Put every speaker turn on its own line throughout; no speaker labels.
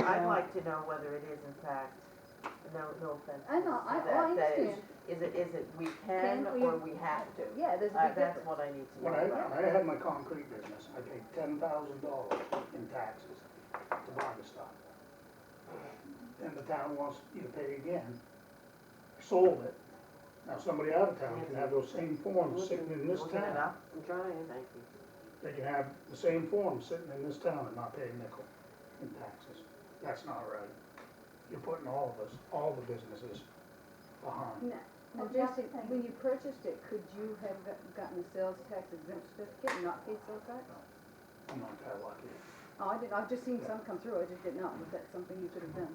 like to know whether it is in fact, no, no offense.
I know, I,
to that,
oh, I
that
understand.
it's- Is it, is it we can
Can we-
or we have to?
Yeah, there's a
Uh,
big
that's
difference.
what I need to
When
know
I,
about.
I had my concrete business, I paid ten thousand dollars in taxes to Barbastock. And the town wants you to pay again, sold it. Now, somebody out of town can have those same forms sitting in this
Looking it
town.
up?
I'm trying, thank you.
They can have the same forms sitting in this town and not pay a nickel in taxes. That's not right. You're putting all of us, all the businesses behind.
Now, now,
Well,
Jesse,
that's the thing.
when you purchased it, could you have got- gotten a sales tax exempt certificate and not paid sales tax?
I'm not that lucky.
Oh, I didn't, I've just seen some come through, I just didn't know, was that something you could have done?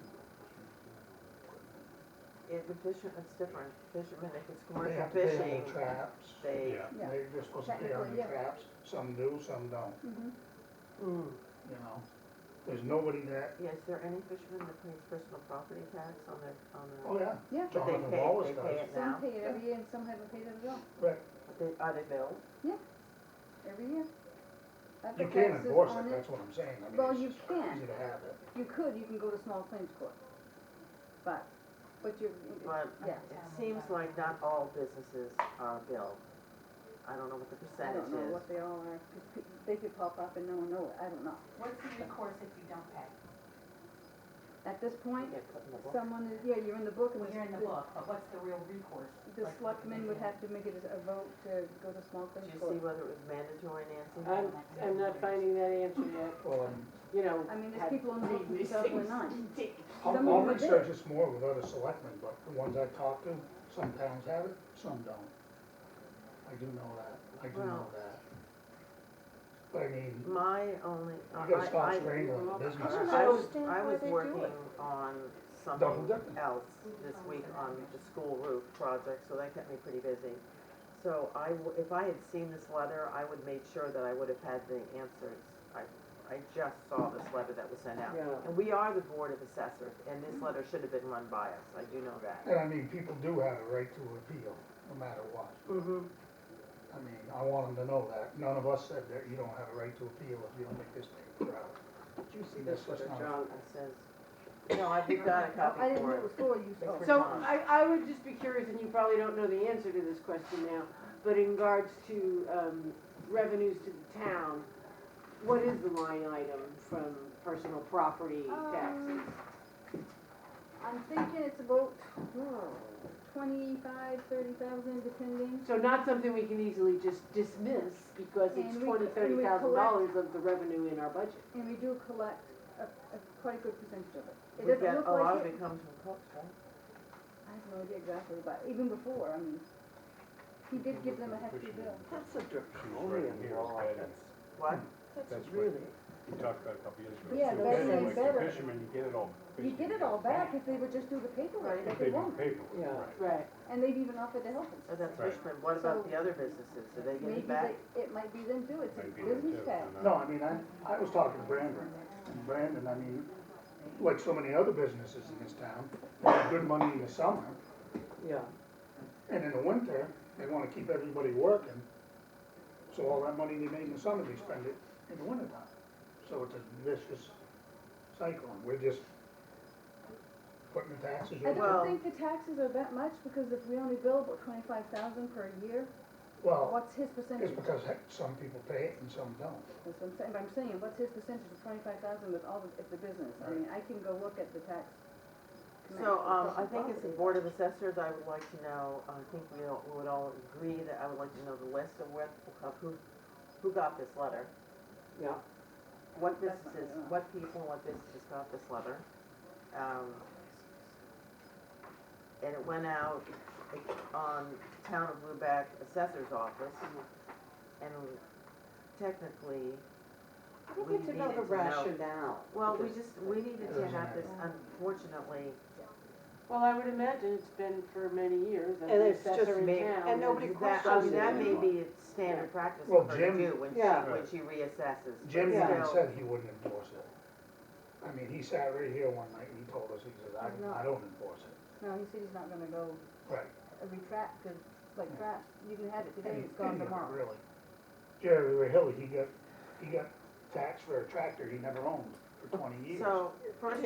It, the fishermen, it's different, fishermen, if it's
They
commercial
have to pay on
fishing,
the traps.
they,
Yeah.
They're just supposed to pay on
Technically,
the
yeah.
traps, some do, some don't,
Mm-hmm.
Mm.
you know? There's nobody that,
yeah, is there any fisherman that pays personal property tax on their, on their?
oh yeah,
Yeah,
But they
Jonathan
pay,
Wallace
they pay
does.
it
some
now,
pay it every year and some haven't paid it at all,
Right.
But they, are they billed?
every year. I've
you
got
can't
taxes
enforce
on
it, that's what I'm saying. I mean,
Well,
it's
you
just
can.
Easy to have it.
You could, you can go to small claims court, but, but you're,
But
yeah.
it seems like not all businesses are billed. I don't know what the
I
percentage
don't know
is.
what they all are, 'cause pe- they could pop up and no one know it, I don't know.
What's the recourse if you don't pay?
At this
You
point,
get put in the book.
someone is, yeah, you're in the book and
Well,
the.
you're in the book, but what's the real recourse?
The
Like,
selectmen would have to make it as a vote to go to small
Did
claims
you see
court.
whether it was mandatory, Nancy?
I'm, I'm not finding that answer yet,
Well, um,
you know.
I mean,
have
there's people on the book
read
from
these
2009.
things.
I'll,
Some of them
I'll
are big.
research this more with other selectmen, but the ones I've talked to, some towns have it, some don't. I do know that, I do
Well.
know that. But I mean,
My only, uh,
you gotta
I, I,
stop strangling the
I
businesses.
was,
I
I
don't
was
understand why they do
working
it.
on
Double
something
dipping.
else this week on the school roof project, so that kept me pretty busy. So I, w- if I had seen this letter, I would made sure that I would have had the answers. I, I just saw this letter that was sent out.
Yeah.
And we are the Board of Assessors, and this letter should have been run by us, I do know that.
And I mean, people do have a right to appeal, no matter what.
Mm-hmm.
I mean, I want them to know that. None of us said that you don't have a right to appeal if you don't make this paper out.
Did you see this letter, John?
It says, no, I've got a copy
I didn't know
for
it
it.
was for you, so.
Thanks
So I, I would just be curious, and you probably don't know the answer to this question now, but in regards to um, revenues to the town, what is the line item from personal property taxes?
Um, I'm thinking it's about hmm, twenty-five, thirty thousand, depending.
So not something we can easily just dismiss because it's
And we-
twenty,
and
thirty
we
thousand
collect-
dollars of the revenue in our budget.
And we do collect a, a quite a good percentage of it. It
We've
doesn't
got,
look
a lot
like
of
it.
it comes from Cook's, right?
I have no idea exactly, but even before, I mean, he did give them a hefty bill.
That's a
draconian She's right in here, law. right? That's-
What?
That's really. We talked about it a couple years ago.
Yeah,
If
better and
you're fisherman, like the
better.
Fisherman, you get it all.
You get it all back if they would just do the paperwork,
If
like
they
they
do
won't.
paper, right.
Right,
And they've even offered to help
Oh,
us.
that's
Right.
Richmond, what about
So-
the other businesses, do they get
Maybe
it back?
they, it might be them too, it's
Might
a
be there
business
too, uh,
tax.
I don't know.
No, I mean, I, I was talking to Brandon. Brandon, I mean, like so many other businesses in this town, they have good money in the summer,
yeah.
and in the winter, they wanna keep everybody working. So all that money they made in the summer, they spend it in the wintertime. So it's a vicious cycle, and we're just putting the taxes
I
on.
Well-
don't think the taxes are that much, because if we only bill about twenty-five thousand per year,
Oh.
Well,
what's his percentage?
it's because heck, some people pay it and some don't.
That's what I'm saying, but I'm saying, what's his percentage of twenty-five thousand with all the, if the business, I mean, I can go look at the tax.
So, um, I
commission
think it's the Board
property.
of Assessors, I would like to know, uh, I think we all, we would all agree that I would like to know the list of what, of who, who got this letter.
Yeah.
What
That's not
businesses,
enough.
what people, what businesses got this letter. Um, and it went out on Town of Lubec Assessor's Office, and technically,
I
we
think it's
needed to
another
know-
rationale.
Well, we
because-
just, we needed to have this, unfortunately,
Well, I would imagine it's been for many years, and
And
the
it's just
assessor in
me-
town.
and nobody
has-
that, I mean, that may
anymore.
be a standard practice
Well,
for her to
Jim-
do when she,
Yeah.
when she reassesses. but
Jim even
still-
said he wouldn't enforce it. I mean, he sat right here one night and he told us, he says, I, I don't enforce it.
No, he said he's not gonna go
Right.
uh, retract, cause it's like
Yeah.
traps, you can have it today,
And
it's gone
he-
tomorrow.
Really. Jerry Rahilly, he got, he got taxed for a tractor he never owned for twenty years.
So, first